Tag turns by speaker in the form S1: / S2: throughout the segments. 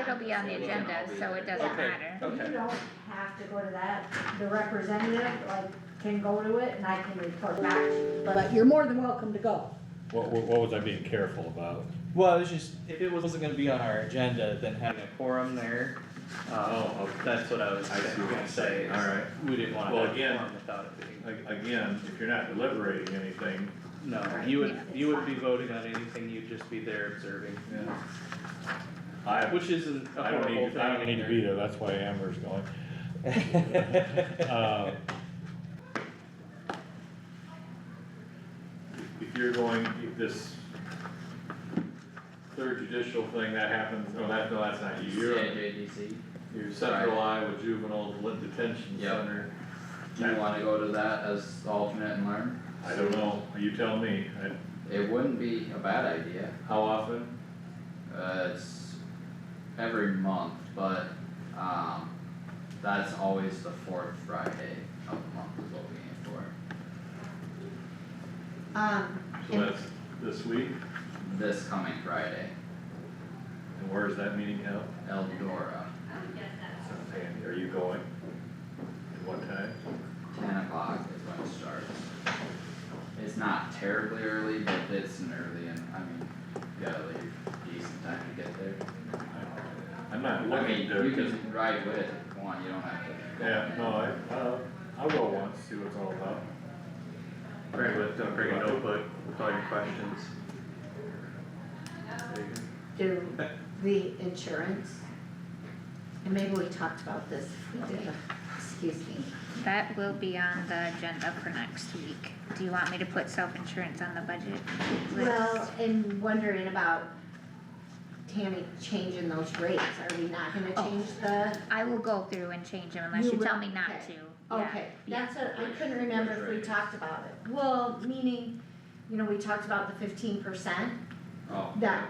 S1: it'll be on the
S2: It'll be
S1: agenda,
S2: on the
S1: so it
S2: agenda.
S1: doesn't
S3: Okay.
S1: matter.
S2: Okay.
S3: You don't have to go to that, the representative, like, can go to it and I can report back, but you're more than welcome to go.
S4: What, what, what was I being careful about?
S5: Well, it was just, if it wasn't gonna be on our agenda, then having a quorum there,
S2: Oh,
S5: um,
S2: okay.
S5: that's what I was
S2: I see what you're
S5: gonna say,
S2: saying.
S5: is
S2: Alright.
S5: we didn't wanna
S2: Well,
S5: have a
S2: again-
S5: quorum without it being.
S2: A- Again, if you're not deliberating anything,
S5: No, you would, you wouldn't be voting on anything, you'd just be there observing,
S2: yeah. I,
S5: which isn't a
S2: I don't need-
S5: horrible thing
S2: I
S4: I need to be there, that's why Amber's going.
S2: Um,
S4: Uh,
S2: if you're going, if this third judicial thing that happens, no, that, no, that's not you, you're,
S6: JDC,
S2: you're Central Iowa Juvenile Detention
S6: Yep.
S2: Center.
S6: do you wanna go to that as the alternate and learn?
S2: I don't know, you tell me, I-
S6: It wouldn't be a bad idea,
S2: how often?
S6: uh, it's every month, but, um, that's always the fourth Friday of the month is what we aim for.
S3: Um,
S2: So that's this week,
S6: This coming Friday,
S2: and where is that meeting held?
S6: Eldora,
S2: And are you going? At what time?
S6: ten o'clock is when it starts. It's not terribly early, but it's an early and, I mean, you gotta leave decent time to get there.
S2: I'm
S6: I
S2: not
S6: mean,
S2: looking
S6: you
S2: to,
S6: can ride with it if you want, you don't have to. go.
S2: yeah, no, I, uh, I'll go once, see what it's all about.
S5: Bring with, uh, bring a notebook with all your questions.
S3: do the insurance, and maybe we talked about this, we did, excuse me.
S1: That will be on the agenda for next week. Do you want me to put self-insurance on the budget
S3: Well,
S1: list?
S3: and wondering about Tammy changing those rates, are we not gonna
S1: Oh.
S3: change the?
S1: I will go through and change them unless
S3: You
S1: you
S3: will?
S1: tell me not
S3: Okay.
S1: to, yeah.
S3: Okay, that's what, I couldn't remember if we talked about it, well, meaning, you know, we talked about the fifteen percent,
S6: Oh.
S3: that,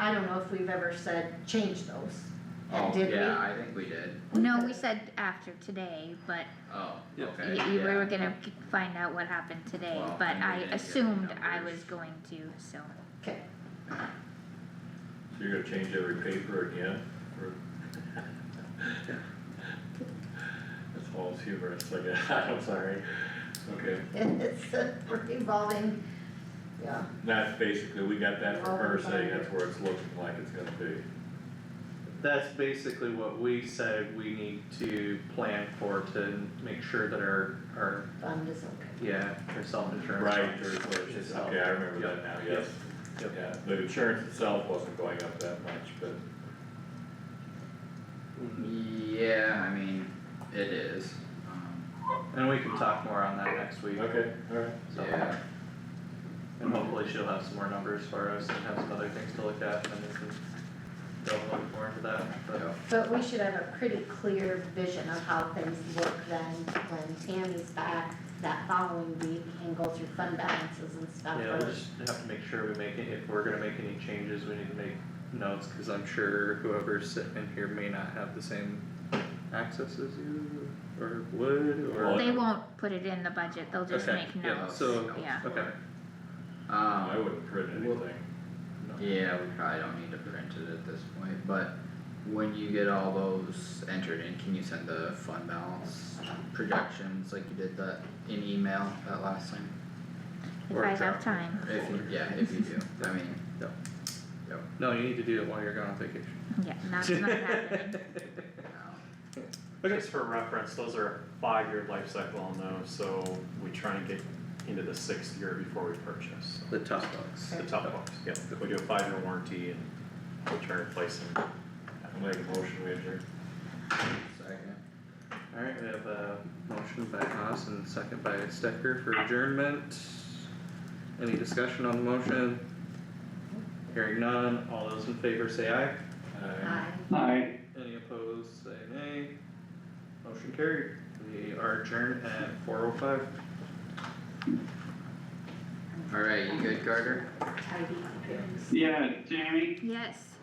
S3: I don't know if we've ever said change those.
S6: Oh,
S3: Did we?
S6: yeah, I think we did,
S1: No, we said after today, but
S6: oh,
S5: Yeah.
S6: okay,
S1: y- you
S6: yeah.
S1: were gonna g- find out what happened today,
S6: Well,
S1: but
S6: and we
S1: I
S6: didn't get the
S1: assumed I
S6: numbers.
S1: was going to, so.
S3: Okay,
S2: So you're gonna change every paper again, or? That's all humorous, I guess, I'm sorry, okay,
S3: and it's a revolving, yeah,
S2: that's basically, we got that from her saying that's where it's looking like it's gonna be.
S5: That's basically what we said we need to plan for to make sure that our, our,
S3: fund is okay.
S5: yeah, our self-insurance.
S2: Right, or,
S5: is
S2: it's just-
S5: up.
S2: okay, I remember that now, yes,
S5: Yep.
S2: yeah, the insurance itself wasn't going up that much, but
S6: Yeah, I mean, it is, um,
S5: And we can talk more on that next week,
S2: Okay, alright.
S5: so.
S6: yeah,
S5: And hopefully she'll have some more numbers for us and have some other things to look at and then we can delve a little more into that, but.
S6: yeah,
S3: But we should have a pretty clear vision of how things work then, when Tammy's back that following week and go through fund balances and stuff.
S5: Yeah, we'll just have to make sure we make it, if we're gonna make any changes, we need to make notes, cause I'm sure whoever's sitting in here may not have the same access as you, or would, or.
S2: Well,
S1: They won't put it in the budget, they'll just
S5: Okay,
S1: make
S5: yeah,
S1: notes,
S5: so,
S1: yeah.
S5: okay,
S2: I
S6: um,
S2: wouldn't print anything,
S6: yeah, we probably don't need to print it at this point, but when you get all those entered in, can you send the fund balance projections like you did that in email that last time?
S1: If
S6: Or
S1: I
S6: drop-
S1: have time,
S6: If you, yeah, if you do, I mean,
S5: no, you need to do it while you're going on vacation.
S1: yeah, that's not happening.
S6: um,
S7: Just for reference, those are a five-year life cycle on those, so we try and get into the sixth year before we purchase.
S5: The tough ones.
S7: The tough ones, yeah, we do a five-year warranty and we try to replace them.
S2: I'll make a motion, we adjourn.
S6: second.
S5: Alright, we have a motion by Haas and second by Stecker for adjournment. Any discussion on the motion? Hearing none, all those in favor say aye.
S2: Uh,
S3: Aye.
S5: Any opposed, say nay. Motion carried. We are adjourned at four oh five.
S6: Alright, you good, Carter?
S3: I'd be prepared.
S8: Yeah, Jamie,
S1: Yes.